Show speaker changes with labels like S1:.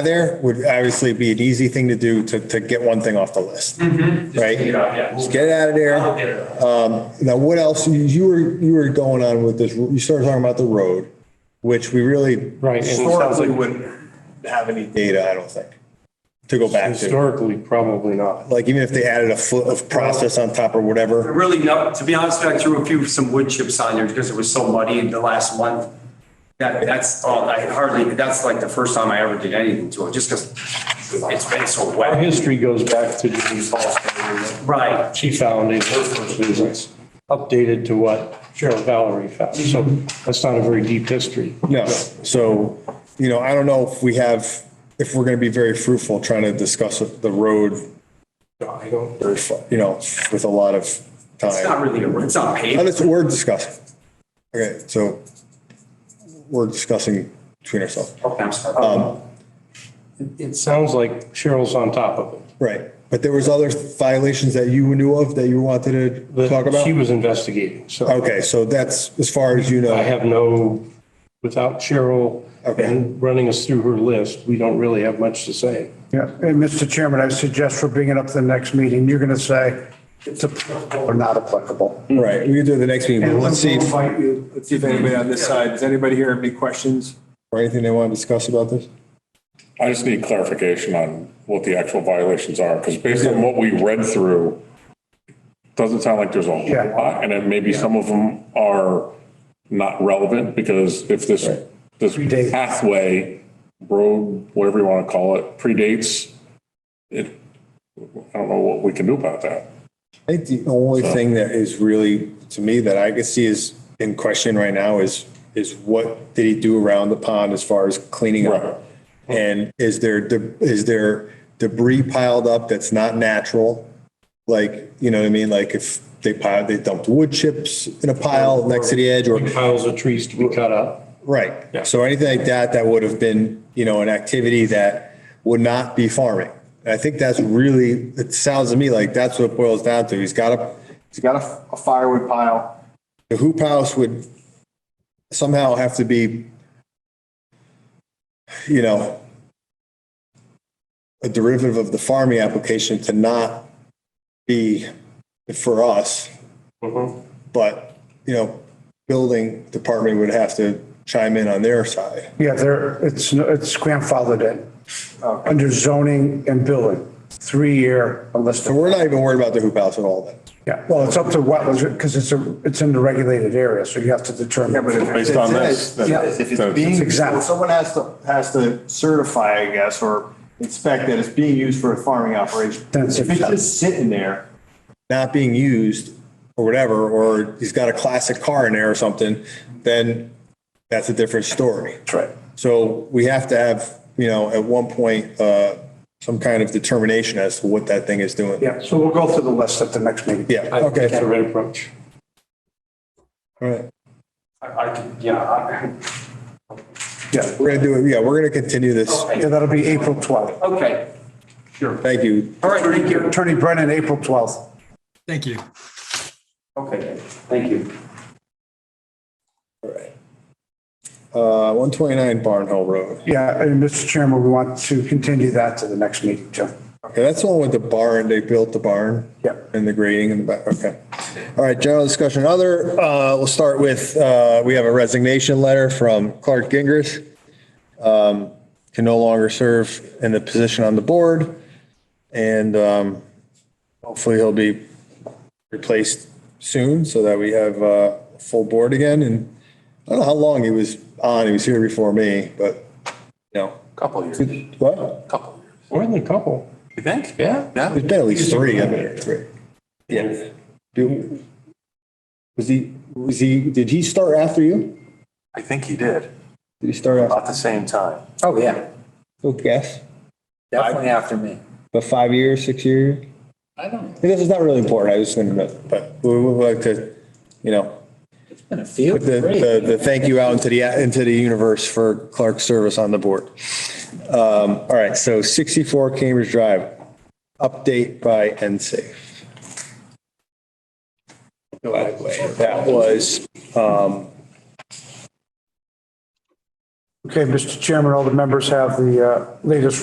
S1: there would obviously be an easy thing to do to, to get one thing off the list. Right?
S2: take it off, yeah.
S1: Just get it out of
S2: I'll
S1: there.
S2: get it.
S1: Um, now, what else, you- you were, you were going on with this, you started talking about the road, which we really.
S3: Right, and it sounds
S1: Historically
S3: like-
S1: wouldn't have any data, I don't think, to go back to.
S3: Historically, probably not.
S1: Like even if they added a foot of process on top or whatever.
S2: Really, no, to be honest, I threw a few, some wood chips on there because it was so muddy in the last month. That, that's all, I hardly, that's like the first time I ever did anything to it, just because it's been so
S3: Our
S2: wet.
S3: history goes back to Denise Halston.
S2: Right.
S3: She found in her first business, updated to what Cheryl Valerie found. So
S1: Mm-hmm.
S3: that's not a very deep history.
S1: No, so, you know, I don't know if we have, if we're going to be very fruitful trying to discuss the road,
S3: I don't.
S1: very fu- you know, with a lot of time.
S2: It's not really, a it's not
S1: Now,
S2: paved.
S1: let's- we're discussing. Okay, so we're discussing between ourselves.
S3: Um,
S2: Okay, I'm sorry.
S3: It sounds like Cheryl's on top of it.
S1: Right, but there was other violations that you knew of that you wanted to
S3: But
S1: talk about?
S3: She was investigating, so
S1: Okay, so that's as far as you know.
S3: I have no, without Cheryl
S1: Okay.
S3: and running us through her list, we don't really have much to say.
S4: Yeah, and Mr. Chairman, I suggest for bringing up the next meeting, you're going to say it's applicable or not applicable.
S1: Right, we can do it the next meeting, but let's see if,
S4: We'll
S1: or
S4: fight you.
S5: Let's see if anybody on this side, does anybody here have any questions?
S1: anything they want to discuss about this?
S6: I just need clarification on what the actual violations are, because based on what we read through, doesn't sound like there's a whole
S4: Yeah.
S6: lot, and then maybe some of them are not relevant, because if this,
S4: Predates.
S6: this pathway, road, whatever you want to call it, predates, it, I don't know what we can do about that.
S1: I think the only thing that is really, to me, that I could see is in question right now is, is what did he do around the pond as far as cleaning
S6: Right.
S1: up? And is there, de- is there debris piled up that's not natural? Like, you know what I mean? Like if they piled, they dumped wood chips in a pile next to the edge or,
S3: Piles of trees to be cut up.
S1: right. So anything like that, that would have been, you know, an activity that would not be farming. And I think that's really, it sounds to me like that's what it boils down to. He's got a,
S5: He's got a- a firewood pile.
S1: the hoop house would somehow have to be, you know, a derivative of the farming application to not be for us. But, you know, building department would have to chime in on their side.
S4: Yeah, there, it's, it's grandfathered in, under zoning and building, three-year unless,
S1: So we're not even worried about the hoop house at all then.
S4: yeah, well, it's up to wetlands because it's a, it's in the regulated area, so you have to determine.
S7: Based on this. then-
S5: Yeah, If it's being,
S4: Exactly.
S7: someone has to, has to certify, I guess, or inspect that it's being used for a farming operation.
S4: Then it's
S7: If it's
S4: exempt.
S7: just sitting there,
S1: Not being used or whatever, or he's got a classic car in there or something, then that's a different story.
S7: right.
S1: So we have to have, you know, at one point, uh, some kind of determination as to what that thing is doing.
S4: Yeah, so we'll go through the list at the next meeting.
S1: Yeah,
S3: That's
S1: okay.
S3: the right approach.
S1: All right.
S2: I I could, yeah, I-
S4: Yeah,
S1: We're gonna do it, yeah, we're gonna continue this.
S4: yeah, that'll be April 12th.
S2: okay.
S1: Thank you.
S2: All right, thank you.
S4: Attorney Brennan, April 12th.
S8: Thank you.
S2: Okay, thank you.
S1: All right. Uh, 129 Barn Hill Road.
S4: Yeah, and Mr. Chairman, we want to continue that to the next meeting, too.
S1: Okay, that's the one with the barn, they built the barn.
S4: Yep.
S1: And the grading in the back, okay. All right, general discussion, other, uh, we'll start with, uh, we have a resignation letter from Clark Gingras. Um, can no longer serve in the position on the board. And, um, hopefully he'll be replaced soon so that we have, uh, a full board again. And I don't know how long he was on, he was here before me, but, you know.
S9: Couple years,
S1: What?
S9: couple years.
S3: More than a couple.
S9: You think? Yeah. Yeah.
S1: There's been at least three, I mean, three. Yeah. Do- Was he, was he, did he start after you?
S9: I think he did,
S1: Did he start after?
S9: about the same time.
S10: Oh, yeah,
S1: Who guess?
S10: definitely after me.
S1: About five years, six years?
S10: I don't know,
S1: This is not really important, I was gonna, know, but we would like to, you know,
S10: it's been a few.
S1: put the,
S10: Great.
S1: the, the thank you out into the, into the universe for Clark's service on the board. Um, all right, so 64 Cambridge Drive, update by NSAFE. By the way, that was, um,
S4: Okay, Mr. Chairman, all the members have the uh, latest